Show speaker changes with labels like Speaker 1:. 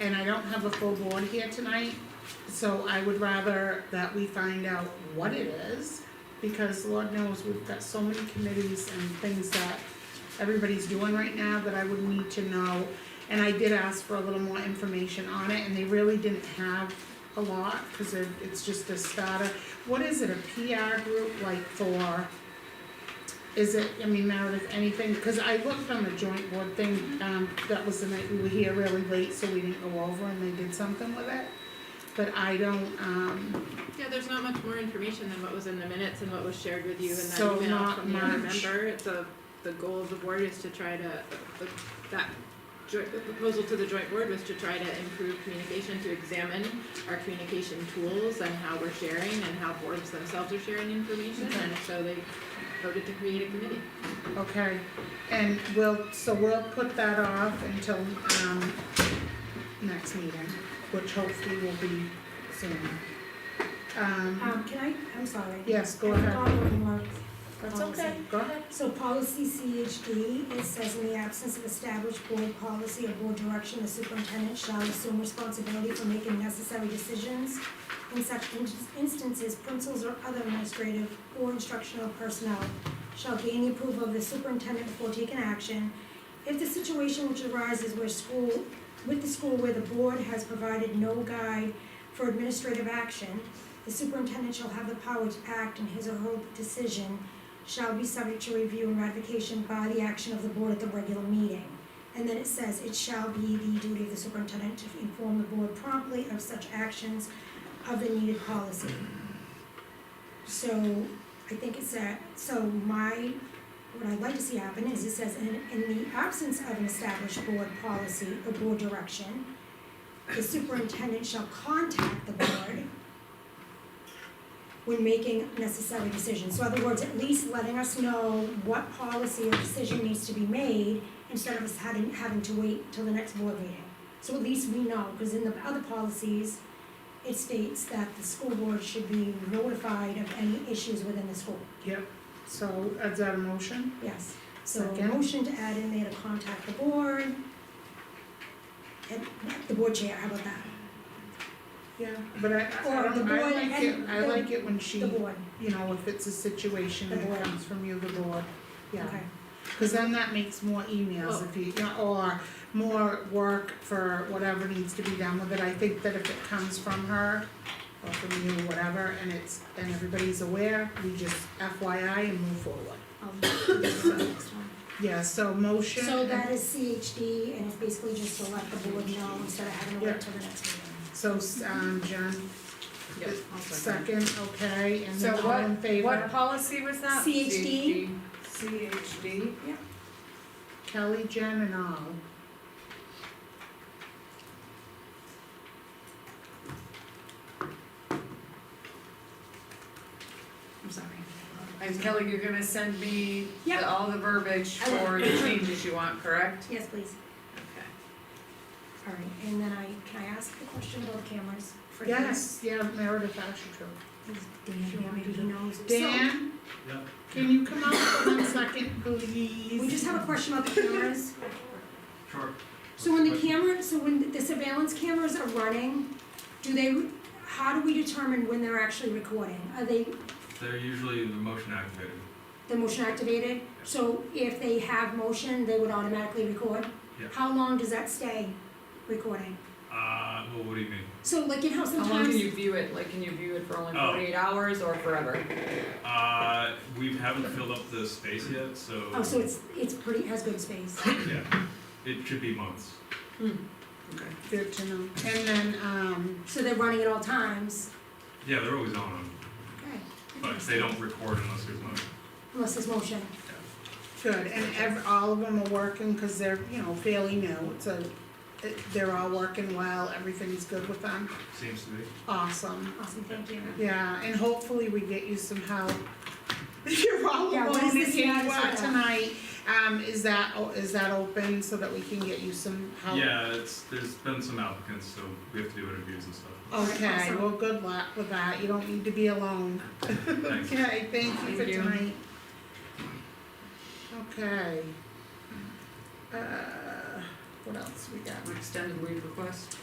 Speaker 1: and I don't have a full board here tonight, so I would rather that we find out what it is, because Lord knows, we've got so many committees and things that everybody's doing right now that I would need to know. And I did ask for a little more information on it, and they really didn't have a lot, cause it, it's just a starter. What is it, a PR group like for, is it, I mean Meredith, anything, cause I looked on the joint board thing, um, that was the night we were here really late, so we didn't go over and they did something with it. But I don't, um,
Speaker 2: Yeah, there's not much more information than what was in the minutes and what was shared with you in that
Speaker 1: So
Speaker 2: email
Speaker 1: not
Speaker 2: from the other
Speaker 1: much.
Speaker 2: member. It's a, the goal of the board is to try to, the, that joint, the proposal to the joint board was to try to improve communication, to examine our communication tools and how we're sharing and how boards themselves are sharing information.
Speaker 1: Okay.
Speaker 2: And so they voted to create a committee.
Speaker 1: okay, and we'll, so we'll put that off until, um, next meeting, which hopefully will be soon. Um,
Speaker 3: Um, can I, I'm sorry.
Speaker 1: yes, go
Speaker 3: I
Speaker 1: ahead,
Speaker 3: forgot what it was.
Speaker 1: that's okay, go ahead.
Speaker 3: So policy CHD, it says in the absence of established board policy or board direction, the superintendent shall assume responsibility for making necessary decisions. In such in- instances, principals or other administrative or instructional personnel shall gain the approval of the superintendent before taking action. If the situation which arises where school, with the school where the board has provided no guide for administrative action, the superintendent shall have the power to act in his or her decision shall be subject to review and ratification by the action of the board at the regular meeting. And then it says, it shall be the duty of the superintendent to inform the board promptly of such actions of the needed policy. So I think it's that, so my, what I'd like to see happen is it says, in, in the absence of an established board policy or board direction, the superintendent shall contact the board when making necessary decisions. So in other words, at least letting us know what policy or decision needs to be made instead of us having, having to wait till the next board meeting. So at least we know, because in the other policies, it states that the school board should be notified of any issues within the school,
Speaker 1: Yep, so is that a motion?
Speaker 3: yes. So a
Speaker 1: Second.
Speaker 3: motion to add in there to contact the board. And the board chair, how about that?
Speaker 1: Yeah, but I, I
Speaker 3: Or the
Speaker 1: don't, I
Speaker 3: board
Speaker 1: like it,
Speaker 3: and
Speaker 1: I
Speaker 3: the-
Speaker 1: like it when she,
Speaker 3: The board,
Speaker 1: you know, if it's a situation
Speaker 3: The
Speaker 1: that
Speaker 3: board.
Speaker 1: comes from you, the board, yeah.
Speaker 3: okay. Oh.
Speaker 1: Cause then that makes more emails if you, yeah, or more work for whatever needs to be done with it, I think that if it comes from her or from you, whatever, and it's, and everybody's aware, we just FYI and move forward.
Speaker 3: I'll do the next one.
Speaker 1: Yeah, so motion.
Speaker 3: So that is CHD, and it's basically just to let the board know instead of having to
Speaker 1: Yeah.
Speaker 3: wait till the next meeting.
Speaker 1: So, um, Jen,
Speaker 2: Yep.
Speaker 1: second, okay, and
Speaker 4: So
Speaker 1: then all in favor?
Speaker 4: What policy was that?
Speaker 3: CHD,
Speaker 4: CHD.
Speaker 1: Kelly, Jen, and all.
Speaker 4: I'm sorry. And Kelly, you're gonna send me the-
Speaker 3: Yeah.
Speaker 4: all the verbiage
Speaker 3: I will.
Speaker 4: for the changes you want, correct?
Speaker 3: yes, please.
Speaker 4: Okay.
Speaker 3: All right, and then I, can I ask the question about the cameras? for Dan?
Speaker 1: Yes, yeah, Meredith Ashetrue.
Speaker 3: Dan, yeah, maybe he knows.
Speaker 1: Dan?
Speaker 5: Yeah.
Speaker 1: Can you come out for one second,
Speaker 3: So,
Speaker 1: please?
Speaker 3: we just have a question about the cameras.
Speaker 5: Sure.
Speaker 3: So when the camera, so when the surveillance cameras are running, do they, how do we determine when they're actually recording? Are they
Speaker 5: They're usually the motion activated.
Speaker 3: the motion activated? So if they have motion, they would automatically record?
Speaker 5: Yeah.
Speaker 3: How long does that stay recording?
Speaker 5: Uh, well, what do you mean?
Speaker 3: So like in how
Speaker 4: How long can
Speaker 3: sometimes,
Speaker 4: you view it? Like, can you view it for only
Speaker 5: Oh.
Speaker 4: forty-eight hours or forever?
Speaker 5: Uh, we haven't filled up the space yet, so.
Speaker 3: oh, so it's, it's pretty, has good space.
Speaker 5: Yeah, it should be months.
Speaker 4: Hmm.
Speaker 1: Good to know. And then, um,
Speaker 3: So they're running at all times,
Speaker 5: Yeah, they're always on them,
Speaker 3: okay,
Speaker 5: but they don't record unless there's motion.
Speaker 3: unless there's motion.
Speaker 1: good, and ev- all of them are working, cause they're, you know, fairly new, it's a, it- they're all working well, everything's good with them,
Speaker 5: Seems to be.
Speaker 1: awesome.
Speaker 3: Awesome, thank you.
Speaker 1: Yeah, and hopefully we get you some help. You're all
Speaker 3: Yeah, what
Speaker 1: alone
Speaker 3: is
Speaker 1: in
Speaker 3: this
Speaker 1: here
Speaker 3: status
Speaker 1: you are
Speaker 3: of that?
Speaker 1: tonight, um, is that, o- is that open so that we can get you some help?
Speaker 5: Yeah, it's, there's been some applicants, so we have to do interviews and stuff.
Speaker 1: Okay,
Speaker 3: Awesome.
Speaker 1: well, good luck with that, you don't need to be alone.
Speaker 5: Thanks.
Speaker 1: Okay, thank you for
Speaker 4: Thank you.
Speaker 1: tonight. Okay. Uh, what else we got?
Speaker 4: Extended leave request?